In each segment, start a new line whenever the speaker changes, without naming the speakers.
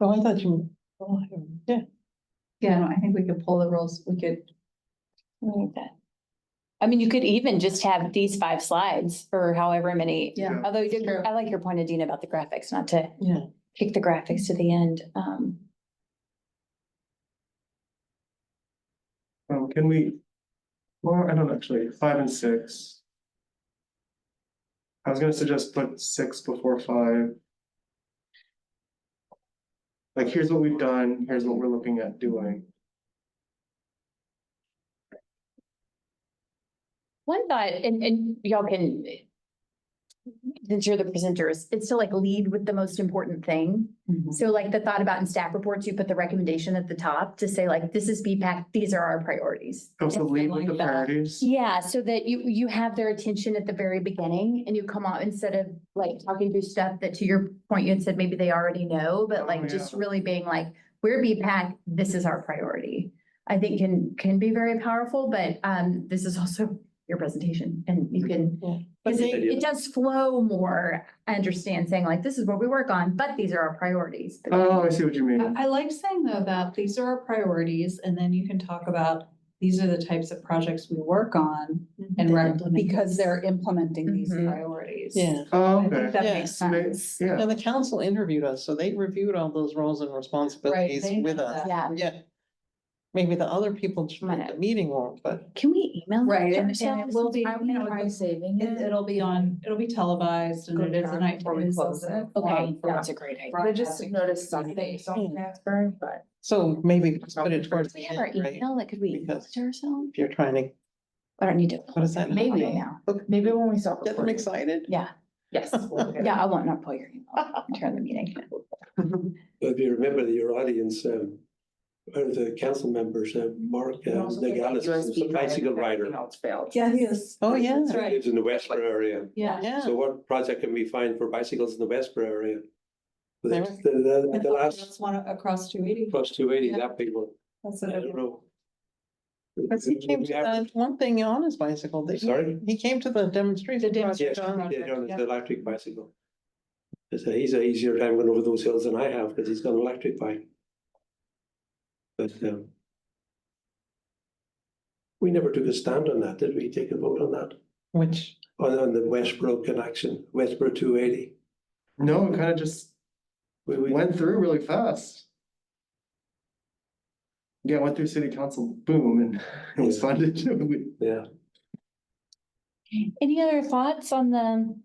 Oh, I thought you. oh, I don't- Yeah.
Yeah, no, I think we could pull the rules, we could,
like that. I mean, you could even just have these five slides or however many.
yeah.
Although you did-
True.
I like your point, Adina, about the graphics, not to
Yeah.
kick the graphics to the end. Um,
Um, can we? Well, I don't actually, five and six. I was gonna suggest put six before five. Like, here's what we've done, here's what we're looking at doing.
One thought, and, and y'all can, since you're the presenters, it's to like lead with the most important thing.
Mm-hmm.
So like the thought about in staff reports, you put the recommendation at the top to say like, this is BPAC, these are our priorities.
Also lead with
like
the
that.
priorities.
Yeah, so that you, you have their attention at the very beginning and you come out instead of like talking through stuff that to your point, you had said maybe they already know, but
Oh,
like just
yeah.
really being like, we're BPAC, this is our priority. I think can, can be very powerful, but um, this is also your presentation and you can,
Yeah.
because it,
Idea.
it does flow more. I understand saying like, this is what we work on, but these are our priorities. But-
Oh, I see what you mean.
I, I like saying though that these are our priorities and then you can talk about, these are the types of projects we work on and rec- because they're implementing these
Mhm.
priorities.
Yeah,
Oh,
I think
okay.
that
Yeah.
makes
Ma-
sense.
Yeah,
and the council interviewed us, so they reviewed all those roles and responsibilities
they
with
know
us.
that.
Yeah,
Yeah. Maybe the other people at
Might
the meeting won't, but
can we email?
Right,
that
and-
Michelle?
and it will be-
I don't know.
Right. It, it'll be on, it'll be televised and
Go
it is the
down.
night before
It
we
is
close
also
it.
Okay,
Um, for
that's a great idea.
I just
broadcasting.
noticed something,
Hmm.
something transparent, but.
so maybe just put it towards
Do
the
we have our
end, right?
email? Like, could we email
Because-
it to ourselves?
If you're trying to,
I don't need to.
what is that?
Maybe
Maybe.
now.
Maybe when we saw.
Get them excited?
Yeah,
Yes.
yeah, I won't not pull your email during the meeting.
If you remember that your audience, um, or the council members, uh, Mark uh, Nagalis, was a bicycle rider.
Yes, yes,
Oh, yeah.
That's right.
Lives in the Westboro area.
yeah.
Yeah,
So what project can we find for bicycles in the Westboro area? The,
There was-
the- the,
And
the last
That's one across two eighty.
plus two eighty, that big one,
That's
I
what I
don't know.
because he came to that one thing on his bicycle, didn't he?
Sorry?
He came to the demonstration.
The
Yes,
project on-
yeah, John, it's
yeah.
the electric bicycle. It's a, he's a easier time going over those hills than I have, because he's got an electric bike. But, um. We never took a stand on that, did we? Take a vote on that,
Which,
on, on the Westboro connection, Westboro two eighty?
No, it kind of just
We, we,
went through really fast. Yeah, went through city council, boom, and it was
Yeah.
funded. We-
yeah,
Any other thoughts on the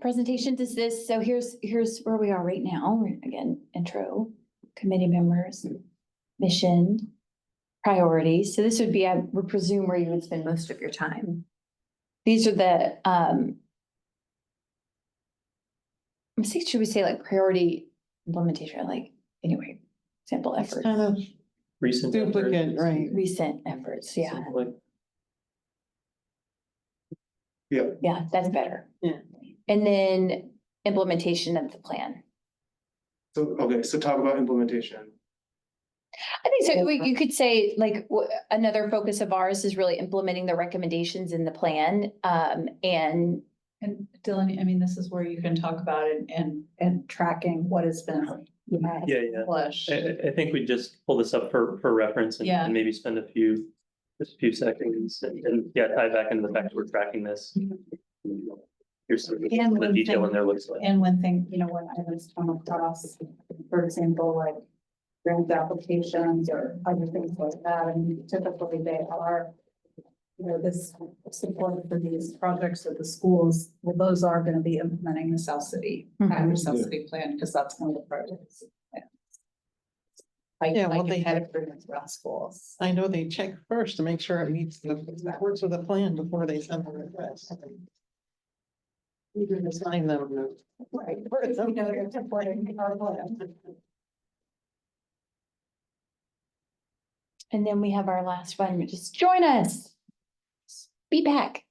presentation? Does this, so here's, here's where we are right now. Again, intro, committee members, mission, priorities. So this would be, I would presume, where you would spend most of your time. These are the, um, I'm saying, should we say like priority implementation, like, anyway, sample
it's
effort,
kind of
Recent.
duplicate, right?
recent efforts, yeah.
Yeah.
Yeah, that's better.
Yeah.
And then implementation of the plan.
So, okay, so talk about implementation.
I think so. We- You could say like wh- another focus of ours is really implementing the recommendations in the plan. Um, and
And Dylan, I mean, this is where you can talk about it and, and tracking what has been.
Yeah.
Yeah, yeah.
accomplished.
I, I, I think we just pull this up for, for reference and-
Yeah.
and maybe spend a few, just a few seconds and, and, yeah, tie back into the fact that we're tracking this. Here's some of the-
Mm-hmm. And
the
one
detail
thing-
in there looks like.
And one thing, you know, when I was on across, for example, like grant applications or other things like that, and typically they are, you know, this support for these projects at the schools, well, those are gonna be implementing the South City,
Mm-hmm.
Mhm.
Agri South City Plan, because that's one of the projects. yeah. Like,
Yeah, well,
like
they-
competitive improvements around schools.
I know they check first to make sure it meets the, that works with the plan before they send the request. Even assign them.
Right. You know, they're supporting our plan.
and then we have our last one, which is join us. Be back.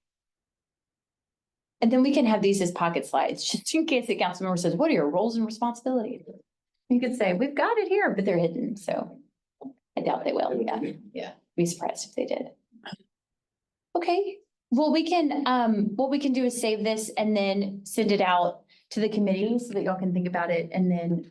And then we can have these as pocket slides, just in case the council member says, what are your roles and responsibilities? You could say, we've got it here, but they're hidden, so I doubt they will, yeah.
Yeah.
Be surprised if they did. Okay, well, we can, um, what we can do is save this and then send it out to the committee so that y'all can think about it and then